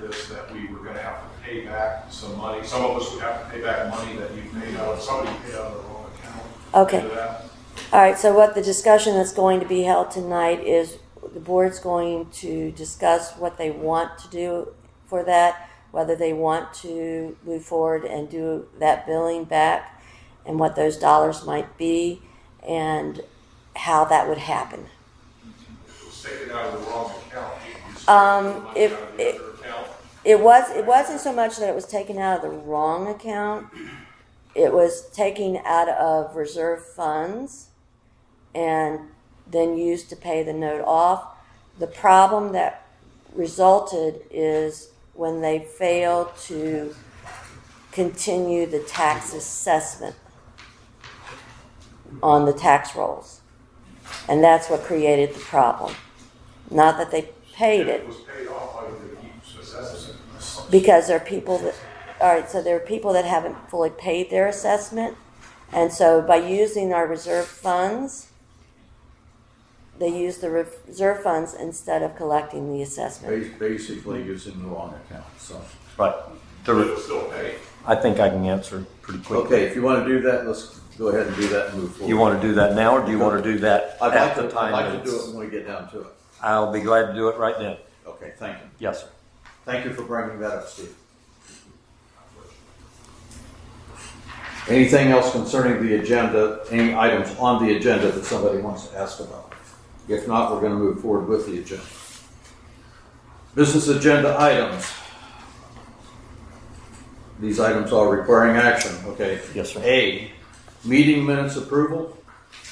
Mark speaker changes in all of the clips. Speaker 1: this, that we were gonna have to pay back some money. Some of us would have to pay back money that you paid out, somebody paid out of their own account.
Speaker 2: Okay.
Speaker 1: into that.
Speaker 2: All right, so what the discussion that's going to be held tonight is the board's going to discuss what they want to do for that, whether they want to move forward and do that billing back, and what those dollars might be, and how that would happen.
Speaker 1: It was taken out of the wrong account. You spent
Speaker 2: Um,
Speaker 1: money
Speaker 2: if-
Speaker 1: out of the
Speaker 2: if-
Speaker 1: other account.
Speaker 2: It was. It wasn't so much that it was taken out of the wrong account. It was taken out of reserve funds, and then used to pay the note off. The problem that resulted is when they failed to continue the tax assessment on the tax rolls, and that's what created the problem. Not that they paid it
Speaker 1: It was paid off by the huge assessment.
Speaker 2: because there are people that, all right, so there are people that haven't fully paid their assessment. And so by using our reserve funds, they use the re- reserve funds instead of collecting the assessment.
Speaker 3: Ba- Basically, it's in the wrong account, so.
Speaker 4: But
Speaker 1: But it
Speaker 4: the,
Speaker 1: was still paid.
Speaker 4: I think I can answer pretty quickly.
Speaker 3: Okay, if you want to do that, let's go ahead and do that and move forward.
Speaker 4: You want to do that now, or do you want to do that
Speaker 3: I'd
Speaker 4: at
Speaker 3: like
Speaker 4: the
Speaker 3: to,
Speaker 4: time?
Speaker 3: I'd like to do
Speaker 4: it's-
Speaker 3: it when we get down to it.
Speaker 4: I'll be glad to do it right then.
Speaker 3: Okay, thank you.
Speaker 4: Yes, sir.
Speaker 3: Thank you for bringing that up, Steve. Anything else concerning the agenda, any items on the agenda that somebody wants to ask about? If not, we're going to move forward with the agenda. Business agenda items. These items are requiring action, okay?
Speaker 4: Yes, sir.
Speaker 3: A, meeting minutes approval.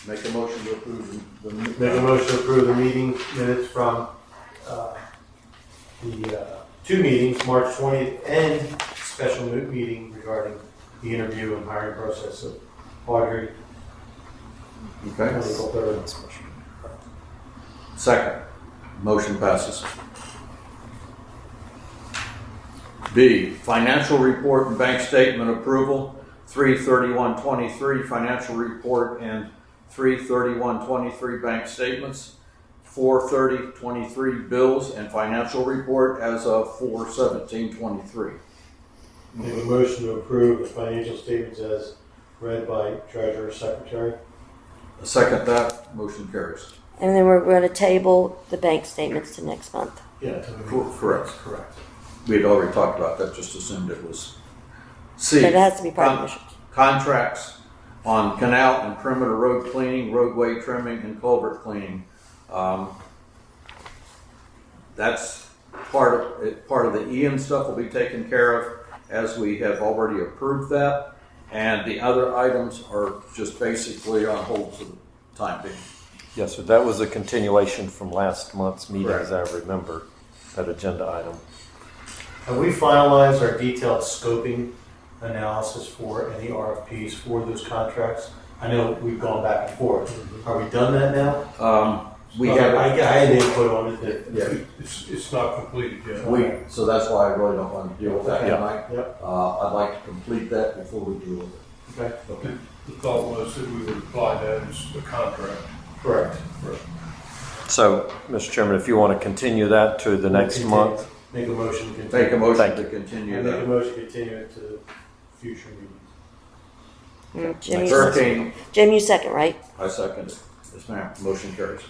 Speaker 3: Make a motion to approve the.
Speaker 5: Make a motion to approve the meeting minutes from uh, the uh, two meetings, March 20th and special mo- meeting regarding the interview and hiring process of Audrey
Speaker 3: Okay,
Speaker 5: Nicole Thurman.
Speaker 3: second. Motion passes. B, financial report and bank statement approval, 33123 financial report and 33123 bank statements, 43023 bills and financial report as of 41723.
Speaker 5: Make a motion to approve the financial statements as read by treasurer secretary.
Speaker 3: Second that, motion carries.
Speaker 2: And then we're going to table the bank statements to next month.
Speaker 5: Yeah.
Speaker 3: Cor- Correct.
Speaker 5: Correct.
Speaker 3: We had already talked about that, just assumed it was. C.
Speaker 2: But it has to be part of the
Speaker 3: con-
Speaker 2: mission.
Speaker 3: Contracts on canal and perimeter road cleaning, roadway trimming, and culvert cleaning. Um, That's part of, it- part of the Ian stuff will be taken care of as we have already approved that. And the other items are just basically on hold for the time being.
Speaker 4: Yes, sir. That was a continuation from last month's meeting,
Speaker 3: Correct.
Speaker 4: as I remember, that agenda item.
Speaker 5: Have we finalized our detailed scoping analysis for any RFPs for those contracts? I know we've gone back and forth. Are we done that now?
Speaker 3: Um, We
Speaker 5: Well, I,
Speaker 3: have,
Speaker 5: I had input on it that.
Speaker 3: yeah,
Speaker 1: It's, it's not completed yet.
Speaker 3: we, so that's why I really don't want to deal with that
Speaker 5: Okay.
Speaker 3: tonight.
Speaker 5: Yep,
Speaker 3: Uh, I'd like to complete that before we deal with it.
Speaker 5: okay,
Speaker 1: The the thought was that we would apply that as the contract.
Speaker 5: correct.
Speaker 4: So, Mr. Chairman, if you want to continue that to the next
Speaker 5: Continue.
Speaker 4: month,
Speaker 5: Make a motion to continue.
Speaker 3: Make a motion
Speaker 4: Thank
Speaker 3: to
Speaker 5: Yeah,
Speaker 3: continue
Speaker 5: Make a
Speaker 3: that.
Speaker 5: motion to continue it to future meetings.
Speaker 2: Mm, Jim, you second.
Speaker 3: Hurricane,
Speaker 2: Jim, you second, right?
Speaker 3: I second it. Yes, ma'am, motion carries.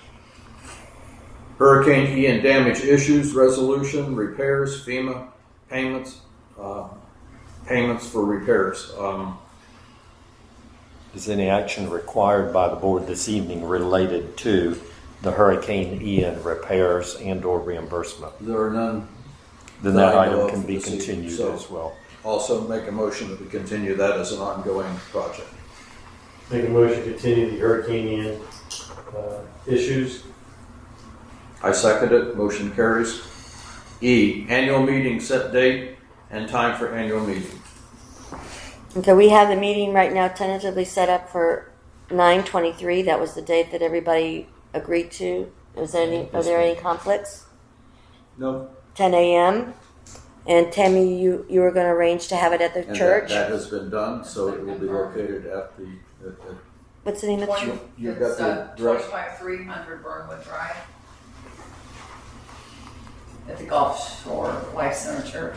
Speaker 3: Hurricane Ian damage issues, resolution, repairs, FEMA payments, uh, payments for repairs. Um,
Speaker 4: is any action required by the board this evening related to the Hurricane Ian repairs and/or reimbursement?
Speaker 3: There are none.
Speaker 4: Then
Speaker 3: That
Speaker 4: that
Speaker 3: I know of
Speaker 4: item can
Speaker 3: for
Speaker 4: be
Speaker 3: this evening,
Speaker 4: continued
Speaker 3: so-
Speaker 4: as well.
Speaker 3: Also make a motion that we continue that as an ongoing project.
Speaker 5: Make a motion to continue the Hurricane Ian, uh, issues.
Speaker 3: I second it, motion carries. E, annual meeting set date and time for annual meeting.
Speaker 2: Okay, we have the meeting right now tentatively set up for nine twenty-three. That was the date that everybody agreed to. Is there any, are there any conflicts?
Speaker 3: No.
Speaker 2: 10 a.m. And Tammy, you, you were going to arrange to have it at the
Speaker 3: And that,
Speaker 2: church.
Speaker 3: that has been done, so it will be located at the, at the
Speaker 2: What's the name of the church?
Speaker 6: Twenty,
Speaker 3: You got
Speaker 6: it's
Speaker 3: the
Speaker 6: uh,
Speaker 3: address?
Speaker 6: twenty-five, three hundred Burnwood Drive. at the Gulf Shore Life Center Church.